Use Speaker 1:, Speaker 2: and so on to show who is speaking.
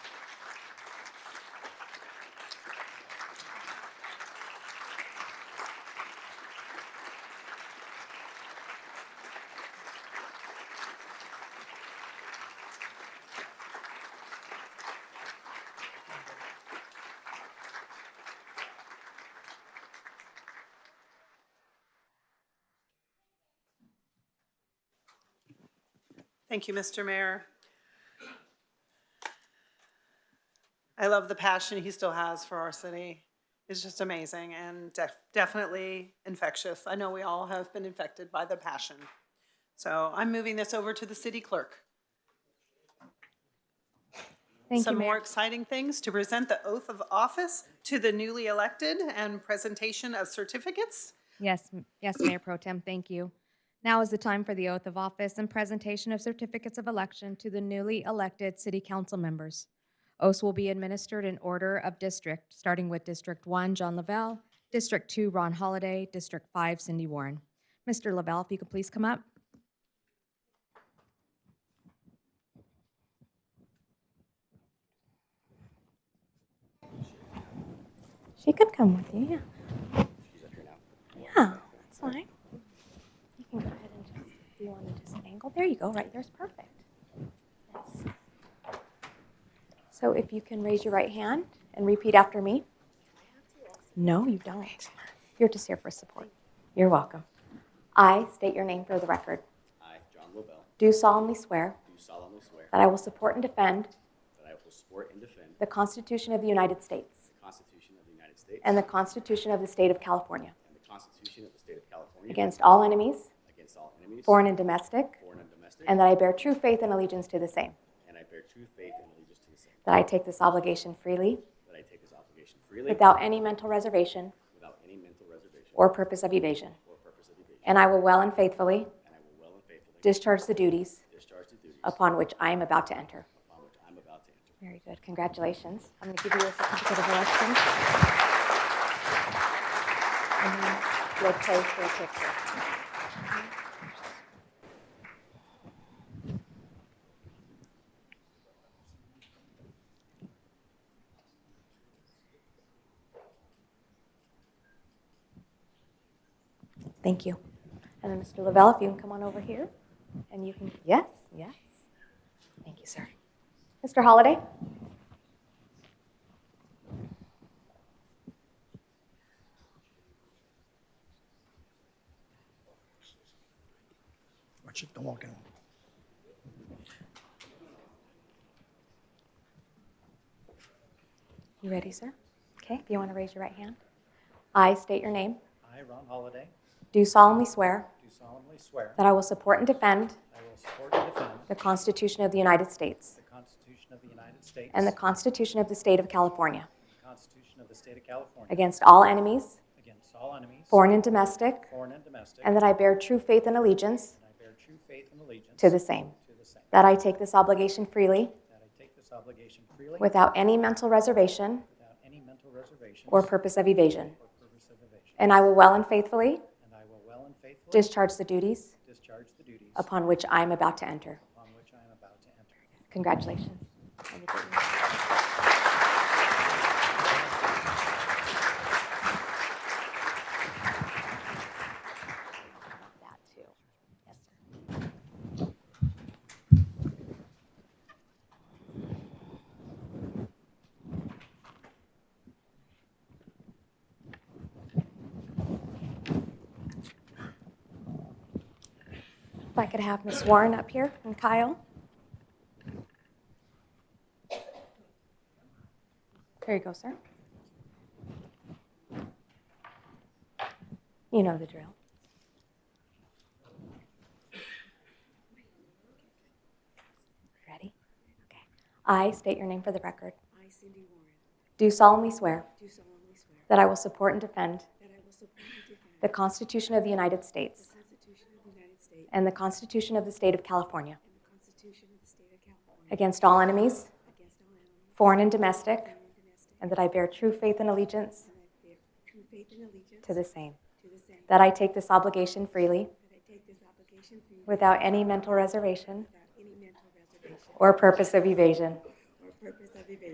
Speaker 1: Thank you, Mr. Mayor. I love the passion he still has for our city. It's just amazing and def- definitely infectious. I know we all have been infected by the passion. So I'm moving this over to the city clerk.
Speaker 2: Thank you,
Speaker 1: Some more
Speaker 2: Mayor.
Speaker 1: exciting things to present the oath of office to the newly elected and presentation of certificates.
Speaker 2: Yes, m- yes, Mayor Pro Tem, thank you. Now is the time for the oath of office and presentation of certificates of election to the newly elected city council members. Oaths will be administered in order of district, starting with District One, John Lavelle, District Two, Ron Holiday, District Five, Cindy Warren. Mr. Lavelle, if you could please come up. She could come with you, yeah. Yeah, that's fine. You can go ahead and just, if you want to just angle, there you go, right there's perfect. Yes. So if you can raise your right hand and repeat after me. No, you don't. You're just here for support. You're welcome. I state your name for the record.
Speaker 3: I, John Lobel,
Speaker 2: Do solemnly swear
Speaker 3: do solemnly swear
Speaker 2: that I will support and defend
Speaker 3: that I will support and defend
Speaker 2: the Constitution of the United States
Speaker 3: the Constitution of the United States
Speaker 2: and the Constitution of the State of California
Speaker 3: and the Constitution of the State of California
Speaker 2: against all enemies,
Speaker 3: against all enemies,
Speaker 2: foreign and domestic,
Speaker 3: foreign and domestic,
Speaker 2: and that I bear true faith and allegiance to the same.
Speaker 3: and I bear true faith and allegiance to the same,
Speaker 2: That I take this obligation freely,
Speaker 3: that I take this obligation freely
Speaker 2: without any mental reservation
Speaker 3: without any mental reservation
Speaker 2: or purpose of evasion.
Speaker 3: or purpose of evasion,
Speaker 2: And I will well and faithfully
Speaker 3: and I will well and faithfully
Speaker 2: discharge the duties
Speaker 3: discharge the duties
Speaker 2: upon which I am about to enter.
Speaker 3: upon which I'm about to enter.
Speaker 2: Very good. Congratulations. I'm going to give you a certificate of election. And then You'll pose for a picture. Thank you. And then Mr. Lavelle, if you can come on over here, and you can, yes, yes. Thank you, sir. Mr. Holliday?
Speaker 4: Watch it, don't walk in.
Speaker 2: You ready, sir? Okay, if you want to raise your right hand. I state your name.
Speaker 5: I, Ron Holiday,
Speaker 2: Do solemnly swear
Speaker 5: do solemnly swear
Speaker 2: that I will support and defend
Speaker 5: I will support and defend
Speaker 2: the Constitution of the United States
Speaker 5: the Constitution of the United States
Speaker 2: and the Constitution of the State of California
Speaker 5: the Constitution of the State of California
Speaker 2: against all enemies,
Speaker 5: against all enemies,
Speaker 2: foreign and domestic,
Speaker 5: foreign and domestic,
Speaker 2: and
Speaker 5: and
Speaker 2: that I bear true faith and allegiance
Speaker 5: I bear true faith and allegiance
Speaker 2: to the same.
Speaker 5: to the same,
Speaker 2: That I take this obligation freely
Speaker 5: that I take this obligation freely
Speaker 2: without any mental reservation
Speaker 5: without any mental reservation
Speaker 2: or purpose of evasion.
Speaker 5: or purpose of evasion,
Speaker 2: And I will well and faithfully
Speaker 5: and I will well and faithfully
Speaker 2: discharge the duties
Speaker 5: discharge the duties
Speaker 2: upon which I am about to enter.
Speaker 5: upon which I am about to enter.
Speaker 2: Congratulations. If I could have Ms. Warren up here and Kyle. There you go, sir. You know the drill. Ready? Okay. I state your name for the record.
Speaker 6: I, Cindy Warren,
Speaker 2: Do solemnly swear
Speaker 6: do solemnly swear
Speaker 2: that I will support and defend
Speaker 6: that I will support and defend
Speaker 2: the Constitution of the United States
Speaker 6: the Constitution of the United States
Speaker 2: and the Constitution of the State of California
Speaker 6: and the Constitution of the State of California
Speaker 2: against all enemies,
Speaker 6: against all enemies,
Speaker 2: foreign and domestic,
Speaker 6: foreign and domestic,
Speaker 2: and that I bear true faith and allegiance
Speaker 6: and that I bear true faith and allegiance
Speaker 2: to the same.
Speaker 6: to the same,
Speaker 2: That I take this obligation freely
Speaker 6: that I take this obligation freely
Speaker 2: without any mental reservation
Speaker 6: without any mental reservation
Speaker 2: or purpose of evasion,
Speaker 6: or purpose